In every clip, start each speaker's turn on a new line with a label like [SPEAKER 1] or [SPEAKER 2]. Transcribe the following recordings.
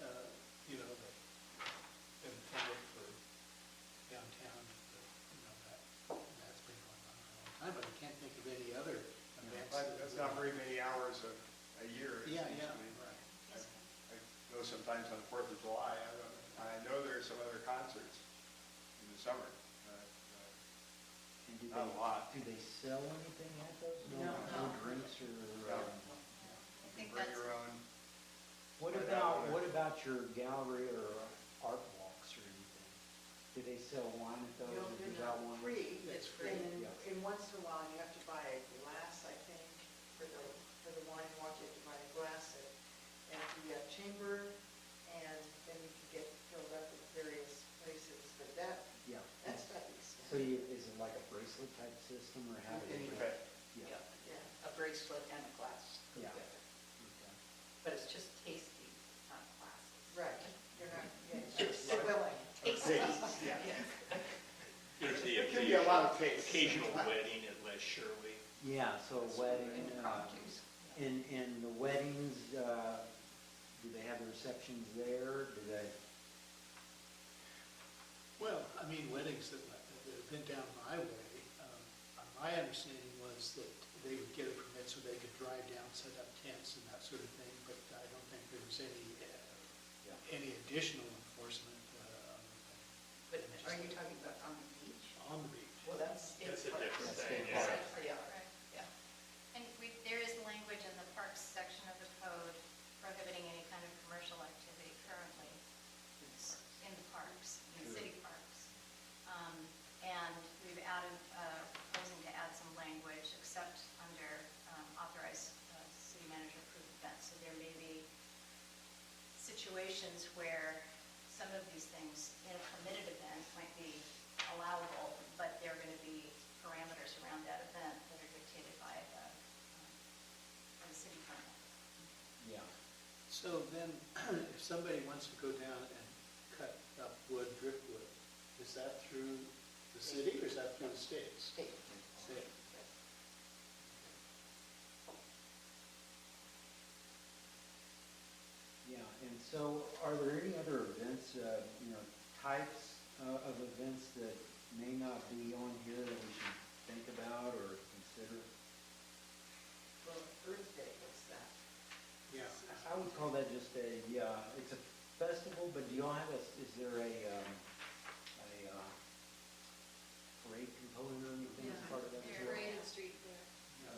[SPEAKER 1] uh,
[SPEAKER 2] sometimes on Fourth of July. I don't, I know there are some other concerts in the summer, but, uh,
[SPEAKER 3] And do
[SPEAKER 2] not a
[SPEAKER 3] they-
[SPEAKER 2] lot.
[SPEAKER 3] Do they sell anything at those?
[SPEAKER 4] No.
[SPEAKER 3] No drinks or,
[SPEAKER 2] No. you
[SPEAKER 3] um,
[SPEAKER 4] I
[SPEAKER 2] can bring
[SPEAKER 4] think that's,
[SPEAKER 2] your own.
[SPEAKER 3] what
[SPEAKER 2] Right out.
[SPEAKER 3] about, what about your gallery or art walks or anything? Do they sell wine at those?
[SPEAKER 5] You
[SPEAKER 3] Have
[SPEAKER 5] don't do
[SPEAKER 3] you
[SPEAKER 5] not
[SPEAKER 3] got one?
[SPEAKER 5] free,
[SPEAKER 4] It's free.
[SPEAKER 5] and,
[SPEAKER 3] Yeah.
[SPEAKER 5] and once in a while, you have to buy a glass, I think, for the, for the wine walk, you have to buy a glass, and- and if you have chamber, and then you can get filled up at various places, but that,
[SPEAKER 3] Yeah.
[SPEAKER 5] that's not the
[SPEAKER 3] So
[SPEAKER 5] extent.
[SPEAKER 3] you, is it like a bracelet type system or how do
[SPEAKER 4] Okay.
[SPEAKER 3] you?
[SPEAKER 2] Okay.
[SPEAKER 3] Yeah.
[SPEAKER 4] yeah,
[SPEAKER 5] Yeah.
[SPEAKER 4] a bracelet and a glass go
[SPEAKER 3] Yeah.
[SPEAKER 4] together.
[SPEAKER 3] Okay.
[SPEAKER 4] But it's just tasty, not glasses.
[SPEAKER 5] Right, you're not, yeah,
[SPEAKER 2] Sure.
[SPEAKER 5] it's so willing.
[SPEAKER 4] Tasty,
[SPEAKER 2] Tasty, yeah.
[SPEAKER 4] yes.
[SPEAKER 6] There's the
[SPEAKER 2] It can be a lot of taste.
[SPEAKER 6] occasional wedding at Les Shirley.
[SPEAKER 3] Yeah, so a wedding, uh,
[SPEAKER 4] Impromptus.
[SPEAKER 3] and, and the weddings, uh, do they have the receptions there? Do they,
[SPEAKER 1] Well, I mean, weddings that, that have been down my way, um, my understanding was that they would get a permit so they could drive down, set up tents and that sort of thing, but I don't think there was any, uh,
[SPEAKER 3] Yeah.
[SPEAKER 1] any additional enforcement uh,
[SPEAKER 4] But are you talking about on the beach?
[SPEAKER 1] on the beach.
[SPEAKER 4] Well, that's.
[SPEAKER 6] That's a different
[SPEAKER 3] That's thing,
[SPEAKER 6] thing,
[SPEAKER 3] different.
[SPEAKER 6] yeah.
[SPEAKER 3] yeah.
[SPEAKER 4] oh, Yeah,
[SPEAKER 7] Right.
[SPEAKER 4] yeah.
[SPEAKER 7] And we, there is language in the parks section of the code prohibiting any kind of commercial activity currently in the parks, in the city parks. Um, And we've added, uh, proposing to add some language except under um, authorized uh, city manager approved events. So there may be situations where some of these things in a permitted event might be allowable, but there are going to be parameters around that event that are dictated by the, um, by the city permit.
[SPEAKER 3] yeah,
[SPEAKER 1] So then, if somebody wants to go down and cut up wood, driftwood, is that through the city or is that through the states?
[SPEAKER 4] State.
[SPEAKER 1] State.
[SPEAKER 3] yeah. And so are there any other events, uh, you know, types uh, of events that may not be on here that we should think about or consider?
[SPEAKER 5] Well, Earth Day, what's that?
[SPEAKER 1] Yeah.
[SPEAKER 3] I would call that just a, yeah, it's a festival, but do y'all have a, is there a, um, a uh, parade component or anything as
[SPEAKER 5] Yeah.
[SPEAKER 3] part of that? as
[SPEAKER 7] There is.
[SPEAKER 3] well? Oh, Okay.
[SPEAKER 7] Parade and street
[SPEAKER 1] uh,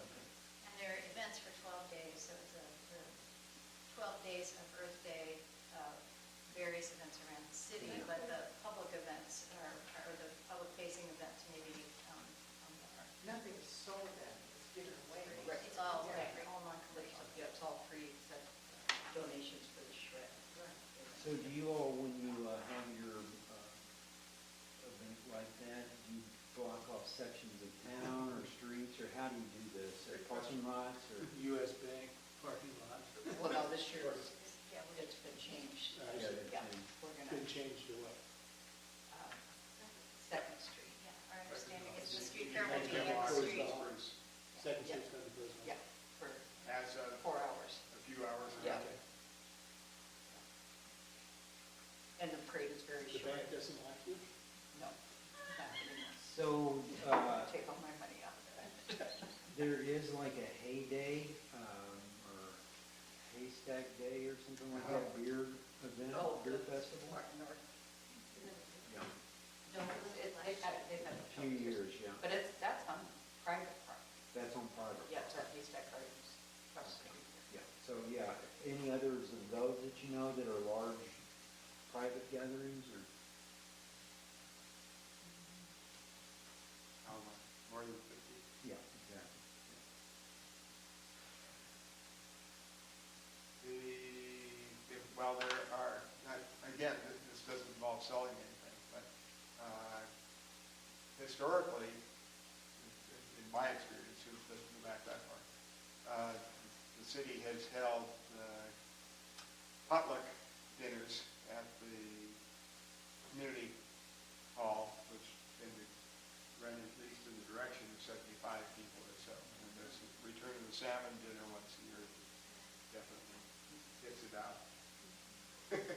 [SPEAKER 7] And there are events for 12 days, so it's a, the 12 days of Earth Day, uh, various events around the city, but the public events are, or the public facing events maybe um, on the Earth.
[SPEAKER 5] Nothing is sold then, it's given away.
[SPEAKER 4] Right.
[SPEAKER 7] It's all,
[SPEAKER 5] Yeah.
[SPEAKER 7] right, all
[SPEAKER 4] Collection.
[SPEAKER 7] non-commercial.
[SPEAKER 4] Yeah, it's all free except donations for the shred.
[SPEAKER 3] So do you all, when you uh, have your uh, event like that, do you block off sections of town or streets, or how do you do this? Or Parking lots, or?
[SPEAKER 1] US Bank parking lot,
[SPEAKER 4] Well, now this year, it's
[SPEAKER 7] Yeah, we're
[SPEAKER 4] it's been changed.
[SPEAKER 1] Uh, Yeah,
[SPEAKER 3] Oh, they've
[SPEAKER 4] Yeah,
[SPEAKER 3] changed.
[SPEAKER 4] we're
[SPEAKER 1] been
[SPEAKER 4] gonna,
[SPEAKER 1] changed to what?
[SPEAKER 4] um, Second Street.
[SPEAKER 7] Yeah, our understanding is the street
[SPEAKER 2] You
[SPEAKER 7] fair will
[SPEAKER 2] can
[SPEAKER 7] be
[SPEAKER 2] get
[SPEAKER 7] in the
[SPEAKER 2] lots of
[SPEAKER 7] street.
[SPEAKER 2] offers
[SPEAKER 1] Second
[SPEAKER 4] Yeah.
[SPEAKER 1] shift's gonna be closed.
[SPEAKER 4] Yeah, for
[SPEAKER 2] As of
[SPEAKER 4] four hours.
[SPEAKER 2] a few hours. ago.
[SPEAKER 4] Yeah.
[SPEAKER 1] Okay.
[SPEAKER 4] And the parade is very
[SPEAKER 1] The
[SPEAKER 4] short.
[SPEAKER 1] bank doesn't like you?
[SPEAKER 4] No, not anymore.
[SPEAKER 3] So
[SPEAKER 4] I'm
[SPEAKER 3] uh,
[SPEAKER 4] gonna Take all my money out of it.
[SPEAKER 3] there is like a heyday, um, or haystack day or something like that, beer event,
[SPEAKER 4] Uh-huh. Oh,
[SPEAKER 3] beer
[SPEAKER 4] the-
[SPEAKER 3] festival?
[SPEAKER 4] Martin North.
[SPEAKER 3] Yeah,
[SPEAKER 4] No, it- they've had, it- they've had. it
[SPEAKER 3] a
[SPEAKER 4] for
[SPEAKER 3] few years, yeah.
[SPEAKER 4] But it's, that's on private property.
[SPEAKER 3] That's on private.
[SPEAKER 4] Yeah, it's at Haystack Gardens, across the street.
[SPEAKER 3] Yeah, so yeah, any others of those that you know that are large private gatherings or?
[SPEAKER 2] How much? More than fifty.
[SPEAKER 3] Yeah, exactly.
[SPEAKER 2] The, well, there are, not- again, th- this doesn't involve selling anything, but uh, historically, in- in my experience, it doesn't go back that far, uh, the city has held uh, potluck dinners at the community hall, which in the, run at least in the direction of 75 people or so. And there's a return of the salmon dinner once a year, definitely gets it out.